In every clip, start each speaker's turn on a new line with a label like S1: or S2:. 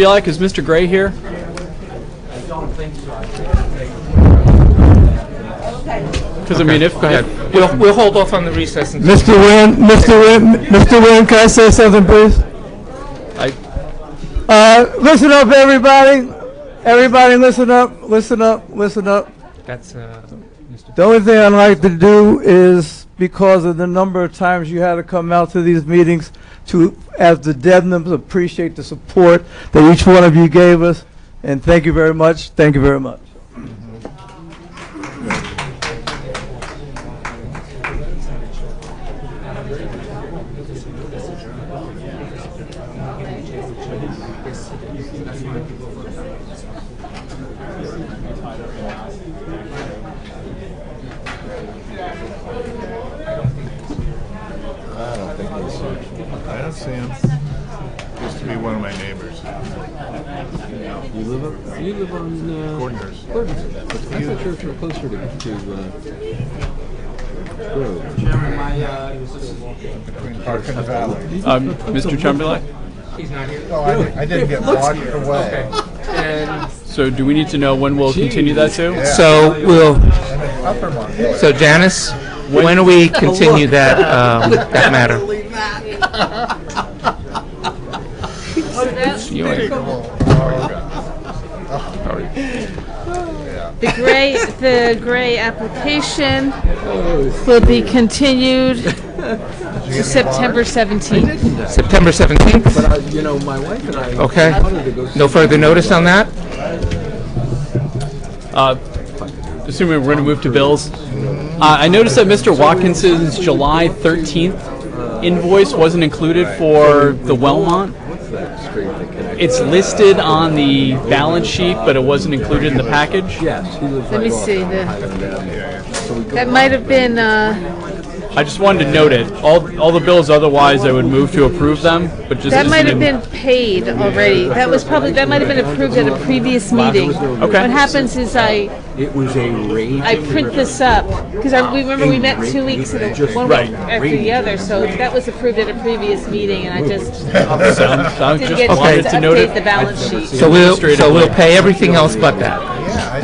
S1: Be like, is Mr. Gray here? Because I mean, if, go ahead.
S2: We'll, we'll hold off on the recess until
S3: Mr. Wynn, Mr. Wynn, Mr. Wynn, can I say something, please?
S2: I,
S3: Uh, listen up, everybody. Everybody, listen up, listen up, listen up.
S2: that's, uh, Mr.
S3: The only thing I'd like to do is, because of the number of times you had to come out to these meetings, to, as the Debnams, appreciate the support that each one of you gave us, and thank you very much, thank you very much.
S4: I don't think he's here. I don't see him. Used to be one of my neighbors.
S5: You live up, you live on uh,
S4: Corners.
S5: Gordon's. I thought you were closer to, to uh, Grove.
S4: Between Park and Valley.
S1: Um, Mr. Chamberlain?
S2: He's not here.
S4: No, I, I didn't get washed away.
S2: And
S1: So do we need to know when we'll continue that to?
S4: Yeah.
S2: so we'll,
S4: I'm in Uppermont.
S2: so Janice, when do we continue that, um, that matter? You ain't-
S6: The gray, the gray application will be continued to September 17th.
S2: September 17th,
S5: But I, you know, my wife and I
S2: Okay.
S5: wanted to go see
S2: no further notice on that?
S1: Uh, Assuming we're going to move to bills. Uh, I noticed that Mr. Watkinson's July 13th invoice wasn't included for the Wellmont.
S5: that street that connects.
S1: It's listed on the balance sheet, but it wasn't included in the package.
S5: yes, she lives
S6: Let
S5: right
S6: me
S5: off
S6: see, the-
S5: Highland Avenue. So we go
S6: That might have been, uh,
S1: I just wanted to note it. All, all the bills otherwise, I would move to approve them, but just.
S6: that might
S1: isn't
S6: have
S1: in-
S6: been paid already. That was probably, that might have been approved at a previous meeting.
S1: Okay.
S6: What happens is I,
S5: It was a raging.
S6: I print this up, because I, we remember we met two weeks in a, one
S1: Right.
S6: week after the other, so that was approved at a previous meeting, and I just
S1: So I
S6: didn't get
S1: just
S6: a
S1: wanted
S6: chance
S1: to
S6: to
S1: note
S6: update the
S1: it.
S6: balance sheet.
S2: So we'll, so we'll pay everything else but that.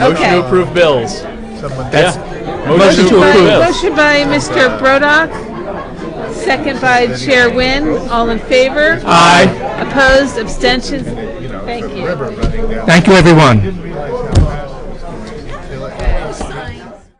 S4: Yeah,
S6: Okay.
S1: Motion to approve bills.
S4: I know.
S1: Yeah.
S2: Motion to
S6: By-
S2: approve.
S1: bills.
S6: Motion by Mr. Brodock, second by Chair Wynne. All in favor?
S2: Aye.
S6: Opposed, abstentions?
S4: You know,
S6: Thank
S4: the
S6: you.
S4: river running down.
S2: Thank you, everyone.
S4: Didn't realize how